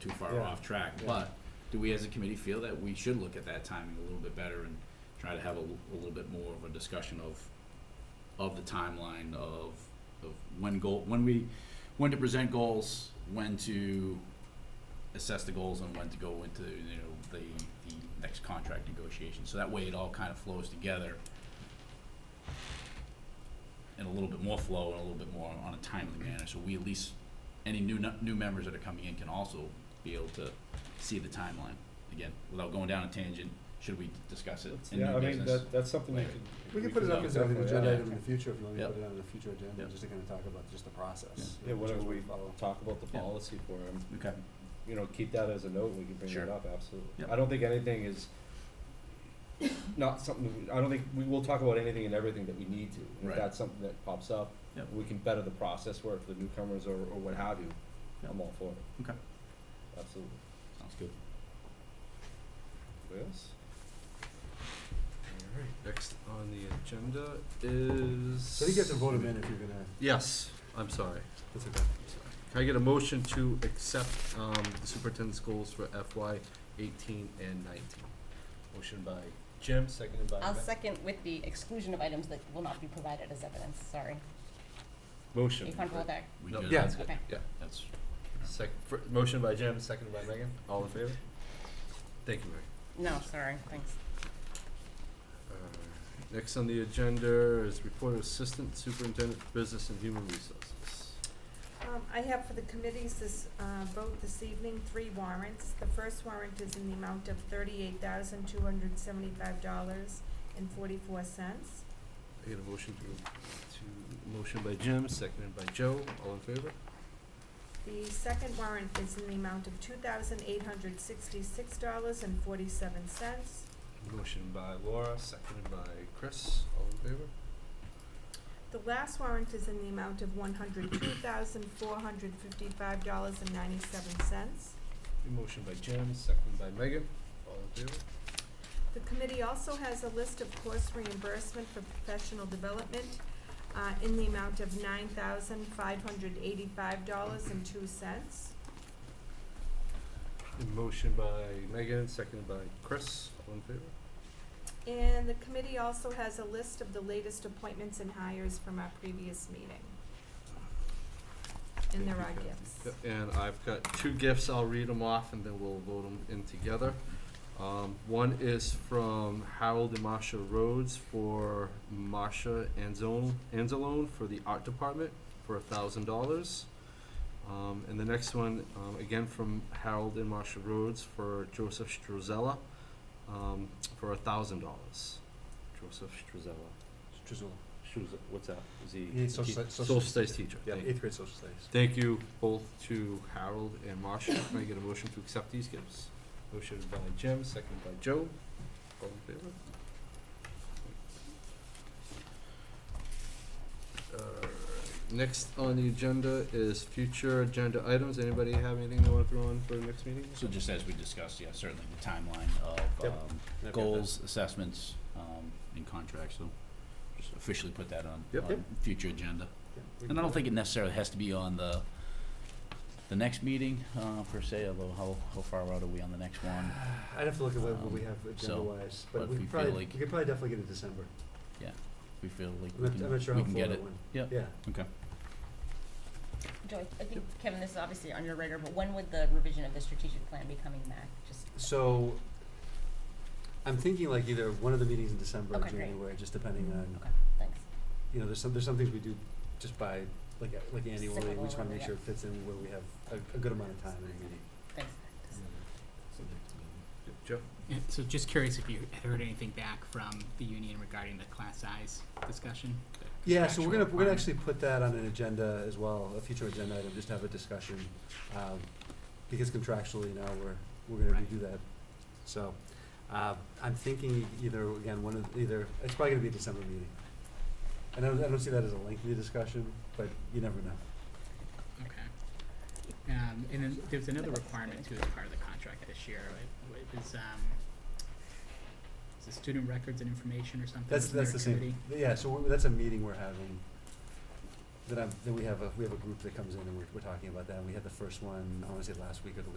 too far Yeah. off track. Yeah. But do we as a committee feel that we should look at that timing a little bit better and try to have a, l- a little bit more of a discussion of, of the timeline of, of when goal, when we, when to present goals, when to assess the goals and when to go into, you know, the, the next contract negotiation. So that way it all kind of flows together in a little bit more flow and a little bit more on a timely manner. So we at least, any new, nu- new members that are coming in can also be able to see the timeline. Again, without going down a tangent, should we discuss it in Yeah, new I mean, business? that, that's something we later. could. We can put it up as an definitely agenda add. item in the future if you want me to Yep. put it on the future agenda, Yep. just to kind of talk about just the process. Yeah, whatever we follow. Talk about the Yeah. policy for him, Okay, you know, keep that as a note, we can bring Sure. that up, absolutely. Yep. I don't think anything is, not something, I don't think, we will talk about anything and everything that we need to. And Right. If that's something that pops up, Yep. we can better the process work for the newcomers or, or what have you. Yep. I'm all for it. Okay. Absolutely. sounds good. What else? Alright, next on the agenda is. So you guys can vote him in if you're gonna, Yes, I'm sorry. that's okay. Can I get a motion to accept, um, the superintendent's goals for FY eighteen and nineteen? Motion by Jim, seconded by I'll Matt. second with the exclusion of items that will not be provided as evidence, sorry. Are Motion. you comfortable with that? We No, good? yeah, that's Okay. That's, Sec, fir- motion by Jim, seconded by Megan, all in favor? Thank you, Megan. No, sorry, thanks. Alright, Uh, Next on the agenda is report of assistant superintendent for business and human resources. Um, I have for the committees this, uh, vote this evening, three warrants. The first warrant is in the amount of thirty-eight thousand, two hundred seventy-five dollars and forty-four cents. I get a motion to, to, motion by Jim, seconded by Joe, all in favor? The second warrant is in the amount of two thousand, eight hundred sixty-six dollars and forty-seven cents. Motion by Laura, seconded by Chris, all in favor? The last warrant is in the amount of one hundred, two thousand, four hundred fifty-five dollars and ninety-seven cents. Motion by Jim, seconded by Megan, all in favor? The committee also has a list of course reimbursement for professional development uh, in the amount of nine thousand five hundred eighty-five dollars and two cents. And motion by Megan, seconded by Chris, all in favor? And the committee also has a list of the latest appointments and hires from our previous meeting. And there are Thank you, gifts. Yep, And I've got two gifts, I'll read them off and then we'll vote them in together. Um, one is from Harold and Marcia Rhodes for Marcia Anzone, Anzalone for the art department for a thousand dollars. Um, and the next one, um, again from Harold and Marcia Rhodes for Joseph Struzella, um, for a thousand dollars. Joseph Struzella. Drizzle. Struz, what's that? Is he? He needs social he- stu- social Social studies studies teacher. Yeah, thank you. eighth grade social studies. Thank you both to Harold and Marcia. Can I get a motion to accept these gifts? Motion by Jim, seconded by Joe. All in favor? Alright, Uh, Next on the agenda is future agenda items. Anybody have anything they wanna throw on for the next meeting? so just as we discussed, yeah, certainly the timeline of, Yep. um, I've got goals, assessments, um, and contracts, so just officially put that on, Yep. on future agenda. that. Yeah, And I we can do don't that. think it necessarily has to be on the, the next meeting, uh, per se, although how, how far out are we on the next one? I'd have to look at what what we Um, have so, agenda-wise, but but if we we could feel probably, we like- could probably definitely get it December. We feel like I'm we not, I'm not sure can, we how full can get that it. one. Yep. Yeah, Joy, I think, Kevin, this is obviously on your radar, but when would the revision of the strategic plan be coming back? Just, so I'm thinking like either one of the meetings in December or Okay, great. January, just depending on, okay, thanks. you know, there's some, there's some things we do just by, like, uh, like annually, we Cyclical just wanna make or- sure it fits in where we have a, a good amount of time in a meeting. Thanks. Joe? Yeah, so just curious if you heard anything back from the union regarding the class size discussion? the Yeah, so we're gonna, contractual we're gonna requirement? actually put that on an agenda as well, a future agenda item, just to have a discussion. um, Because contractually now, we're, we're gonna Right. redo that. So, uh, I'm thinking either, again, one of, either, it's probably gonna be a December meeting. And I don't, I don't see that as a lengthy discussion, but you never know. Okay. Um, and then there's another requirement too as part of the contract this year, right? It was, um, is it student records and information or something? That's, Wasn't there that's the a same, committee? yeah, so we- that's a meeting we're having, that I'm, that we have a, we have a group that comes in and we're, we're talking about that, and we had the first one, I wanna say last week or the week